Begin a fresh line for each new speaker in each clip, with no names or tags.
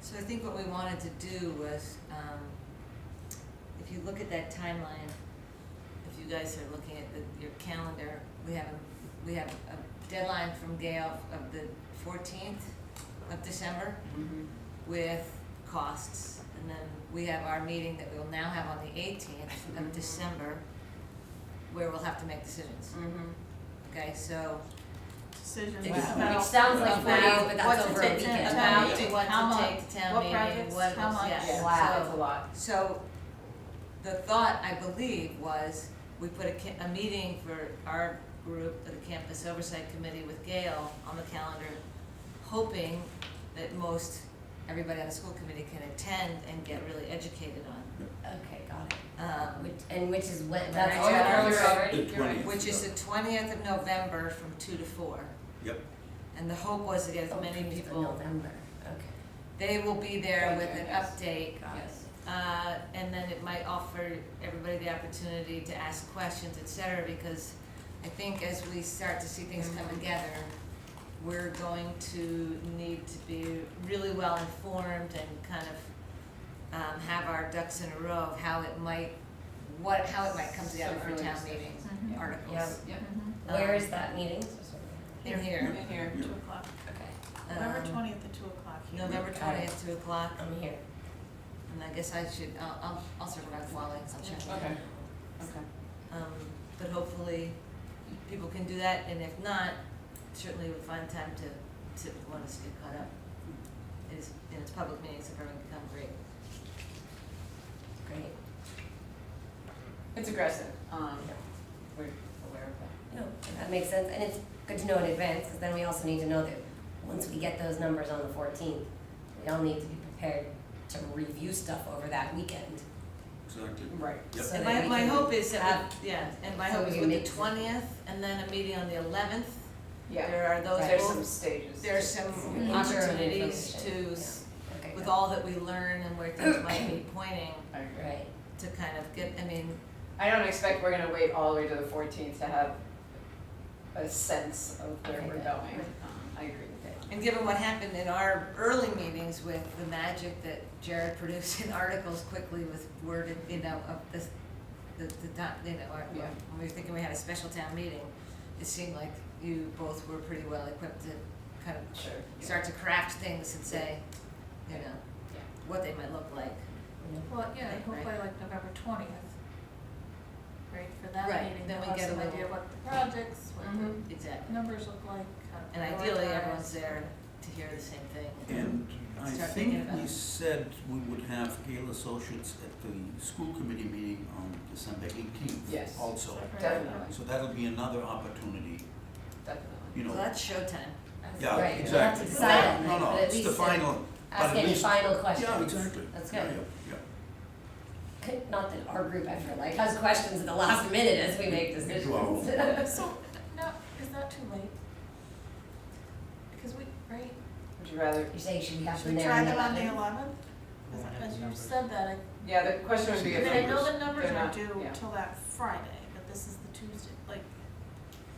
So I think what we wanted to do was, um, if you look at that timeline, if you guys are looking at the, your calendar, we have, a we have a deadline from Gail of the fourteenth of December with costs. And then we have our meeting that we will now have on the eighteenth of
Mhm.
December, where we'll have to make decisions, okay? So
Decisions
Which-
about.
which sounds like
about
value, but that's
what to
over a
take to
weekend.
town,
About
to
what to
how much-
take to town meeting, what
What projects, how
was-
much.
yes. Yeah.
Wow,
So-
that's a lot.
So, the thought, I believe, was we put a, ca- a meeting for our group, the campus oversight committee with Gail on the calendar, hoping that most, everybody on the school committee can attend and get really educated on,
Okay, got it.
um,
Which, and which is what,
That's
that's
all
earlier
earlier
already?
The
You're right.
20th.
which is the twentieth of November from two to four.
Yep.
And the hope was to get as
Oh,
many
it's in
people,
November, okay.
they will be there with
Okay,
an
yes.
update
Got it.
Uh, and then it might offer everybody the opportunity to ask questions, et cetera, because I think as we start to see things
Mm-hmm.
come together, we're going to need to be really well informed and kind of, um, have our ducks in a row of how it might, what, how it might come together for town meeting
Mm-hmm.
Mhm.
articles.
Yep.
Mhm.
Where
Um,
is that meeting?
In here,
In here,
Yeah.
two o'clock.
Okay,
November
um,
twentieth at two o'clock. here.
November
Got it.
twentieth, two o'clock,
I'm here.
and I guess I should, I'll, I'll, I'll circle back to Wally, I'll check.
Okay. Okay.
Um, but hopefully, people can do that, and if not, certainly we find time to, to want us to get caught up. It is, and it's public meetings, if everyone can come, great.
Great.
It's aggressive, um, we're aware of that.
No, that makes sense, and it's good to know in advance, because then we also need to know that once we get those numbers on the fourteenth, we all need to be prepared to review stuff over that weekend.
Exactly.
Right.
Yep.
So
And
that
my,
we
my
can
hope is
have-
that, we- yeah, and my
so
hope
we
is
can
with the
make-
twentieth, and then a meeting on the eleventh,
Yeah,
there are those,
Right.
there's
both-
some stages.
there's
to-
some
Interim
opportunities
information,
to, s-
Okay,
with
got
all that we learn and where things might be pointing,
I
it.
agree.
Right,
to kind of get, I mean,
I don't expect we're gonna wait all the way to the fourteenth to have a sense of where
Okay,
we're
good.
going, um, I agree with that.
And given what happened in our early meetings with the magic that Jared produced in articles quickly with worded, you know, of this, the, the, dot- you know, our-
Yeah.
when we were thinking we had a special town meeting, it seemed like you both were pretty well equipped to kind of
Sure.
start to craft things and say, you know,
Yeah.
what they might look like.
yeah.
Well, yeah,
Right,
hopefully
right.
like November twentieth, right, for that
Right,
meeting,
then
they'll
we
have
get a
some idea
little-
what the projects, what
Mhm.
Exactly.
the numbers look like, how to
And ideally,
prioritize.
everyone's there to hear the same thing.
And I
Start thinking
think
about
we
it.
said we would have Gale Associates at the school committee meeting on December eighteenth
Yes.
also.
Definitely,
So that'll be another opportunity,
definitely.
you
So
know,
that's showtime.
yeah,
Right,
exactly.
we'll have to decide on
No,
that,
no,
but at
it's the
least, uh,
final, but
Ask
at
any
least-
final questions.
yeah, exactly.
That's
Yeah,
good.
yeah,
Could- Not that our group ever like has questions at the last minute as we make decisions.
Wow.
So, no, is that too late? Because we, right,
Would you rather,
You're saying should we have
should
them
we
there
try
on
that on the
eleventh?
eleventh? As you said that, I
yeah, the question would be
Yeah,
I mean, I
if,
know
numbers.
the numbers
They're
are
not-
due
yeah.
till that Friday, but this is the Tuesday, like,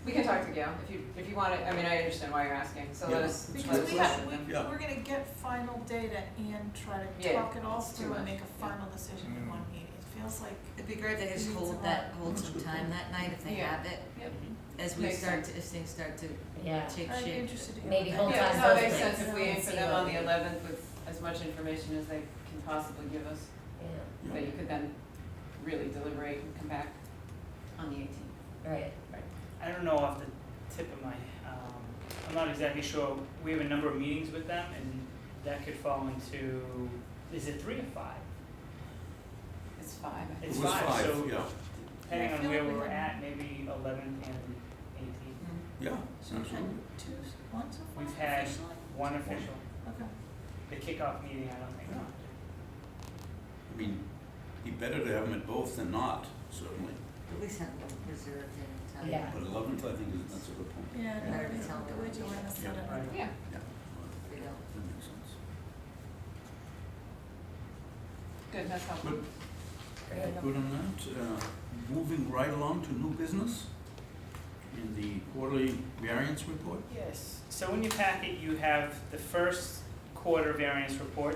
we can talk to Gail, if you, if you want to, I mean, I understand why you're asking, so let
Yeah.
us. let
because
us
we
Right.
have,
listen
we,
and-
Yeah.
we're gonna get final data and try to
Yeah,
talk it all
it's too
through and
much,
make a
yeah.
final decision in one meeting. It feels like,
It'd be great to just
Needs a
hold
lot.
that, hold
That's a
some
good
time that night if they
Yeah.
have it,
Yep.
as we
Makes
start, to as things start to
Yeah,
take shape.
I'd be interested to hear.
Maybe
that.
hold
Yeah,
on
no,
both
it makes sense
nights.
if we aim for
See
them
what
on
we-
the eleventh with as much information as they can possibly give us,
yeah,
yeah.
that you could then really deliberate and come back on the eighteenth.
right.
I don't know off the tip of my, um, I'm not exactly sure, we have a number of meetings with them and that could fall into, is it three or five?
It's five, I think.
It's
It was
five, so
five, yeah,
depending
I
on
feel
where
like we
we're
had-
at, maybe eleven and eighteen.
yeah,
We've had
absolutely.
two, one so far
We've had-
officially?
One official,
Okay.
the kickoff meeting, I don't think.
I mean, be better to have them at both than not, certainly.
At least have them reserved in time.
Yeah.
But eleventh, I think, is, that's a good point.
Yeah,
Yeah.
that'd be helpful, would you wanna set it up?
Right.
Yeah,
Yeah,
We don't-
that makes sense.
good, that's helpful.
Good. Good on that. Uh, Moving right along to new business in the quarterly variance report.
Yes, so in your packet, you have the first quarter variance report